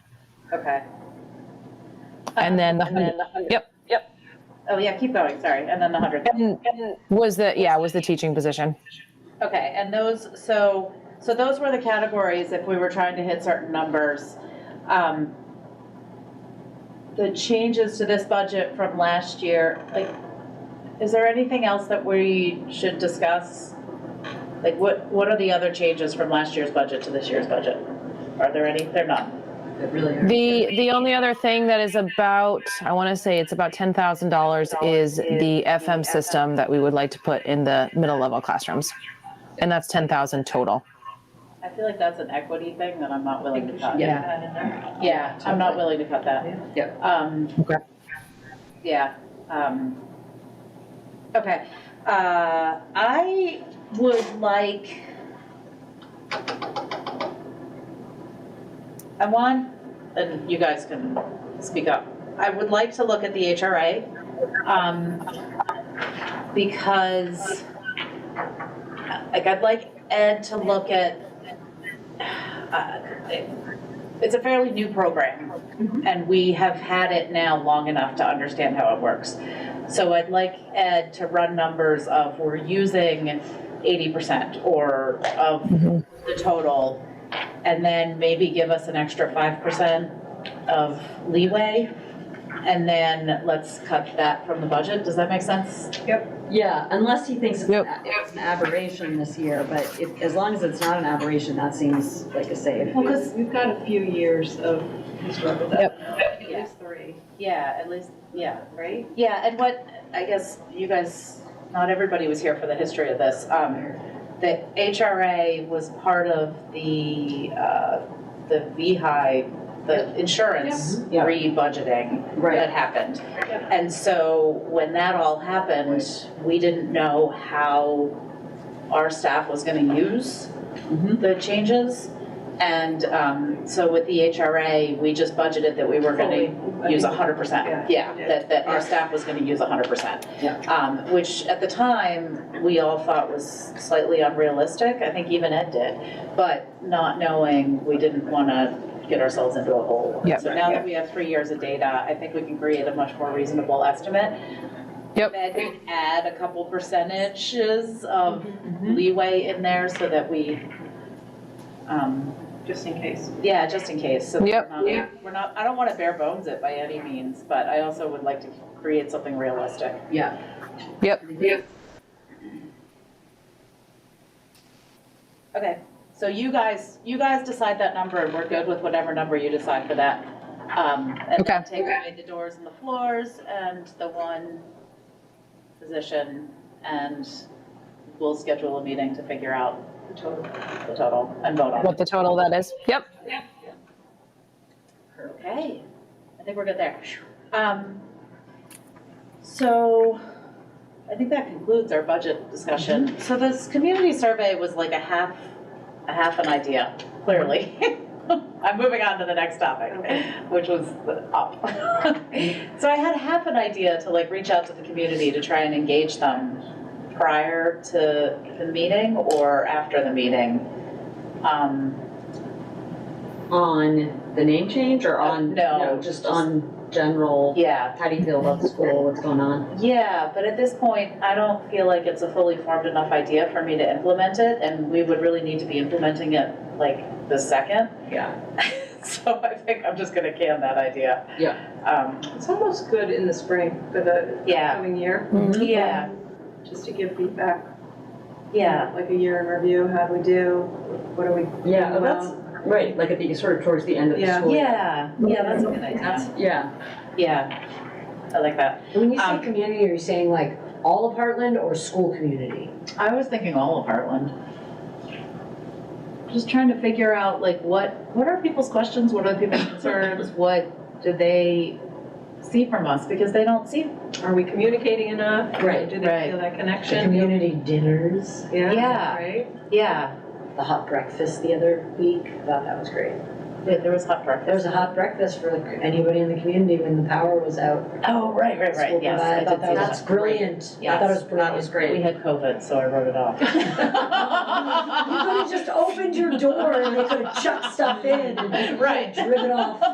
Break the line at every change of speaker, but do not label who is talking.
okay.
And then the
And then the hundred.
Yep.
Yep. Oh, yeah, keep going, sorry, and then the hundred.
And was the, yeah, was the teaching position.
Okay, and those, so, so those were the categories if we were trying to hit certain numbers. Um, The changes to this budget from last year, like, is there anything else that we should discuss? Like, what, what are the other changes from last year's budget to this year's budget? Are there any? They're not.
The, the only other thing that is about, I want to say it's about $10,000 is the FM system that we would like to put in the middle level classrooms. And that's 10,000 total.
I feel like that's an equity thing that I'm not willing to cut.
Yeah.
Yeah, I'm not willing to cut that.
Yep.
Um,
Okay.
Yeah. um, Okay. Uh, I would like, I want, and you guys can speak up. I would like to look at the HRA um, because, like, I'd like Ed to look at, uh, it- it's a fairly new program and we have had it now long enough to understand how it works. So I'd like Ed to run numbers of we're using eighty percent or of the total, and then maybe give us an extra five percent of leeway, and then let's cut that from the budget. Does that make sense?
Yeah, unless he thinks it's
Yep.
an a- it's an aberration this year, but if, as long as it's not an aberration, that seems like a save.
Well, because
We've got a few years of struggle with that. At least three.
yeah, at least yeah, right? Yeah, and what I guess you guys, not everybody was here for the history of this. Um, the HRA was part of the uh, the VHI, the insurance
Yeah.
re-budgeting that
Right,
happened. And so when that all happened, we didn't know how our staff was going to use
Mhm.
the changes. And um, so with the HRA, we just budgeted that we were going to use 100%. Yeah,
Yeah.
that, that our staff was going to use 100%.
Yeah.
Um, Which at the time, we all thought was slightly unrealistic. I think even Ed did. But not knowing, we didn't want to get ourselves into a hole.
Yeah.
So now that we have three years of data, I think we can create a much more reasonable estimate.
Yep.
Maybe add a couple percentages of leeway in there so that we, um,
Just in case.
yeah, just in case. so that
Yep.
We're not, we're not, I don't want to bare bones it by any means, but I also would like to create something realistic.
yeah.
Yep.
Okay, so you guys, you guys decide that number and we're good with whatever number you decide for that. Um, and then
Okay.
take away the doors and the floors and the one position and we'll schedule a meeting to figure out
The total.
the total and vote on it.
What the total that is. Yep.
Okay, I think we're good there. Um, so I think that concludes our budget discussion. So this community survey was like a half, a half an idea, clearly. I'm moving on to the next topic, which was up. So I had half an idea to like reach out to the community to try and engage them prior to the meeting or after the meeting. Um,
On the name change or on?
No,
Just
just-
on general,
yeah,
how do you feel about the school, what's going on?
Yeah, but at this point, I don't feel like it's a fully formed enough idea for me to implement it, and we would really need to be implementing it like the second.
Yeah.
So I think I'm just gonna can that idea.
Yeah.
Um,
It's almost good in the spring for the
Yeah.
coming year.
yeah,
Just to give feedback,
yeah,
like a year in review, how we do, what are we?
Yeah,
doing
that's,
well?
right, like at the, sort of towards the end of the
Yeah.
school. year.
yeah, yeah, that's a good idea.
Yeah,
Yeah, I like that.
When you say
Um,
community, are you saying like all of Heartland or school community?
I was thinking all of Heartland. Just trying to figure out like what, what are people's questions, what are people's concerns, what do they see from us? Because they don't see
Are we communicating enough?
Right,
Do they
right.
feel that
The
connection?
community dinners,
Yeah.
Yeah, right?
Yeah,
the hot breakfast the other week, I thought that was great.
there there was hot breakfast.
There was a hot breakfast for anybody in the community when the power was out.
Oh, right, right,
School
right, yes,
provided.
I did see that.
That's brilliant. I thought it was brilliant.
that was
We
great.
had COVID, so I wrote it off.
You could have just opened your door and they could have chucked stuff in and
Right.
driven off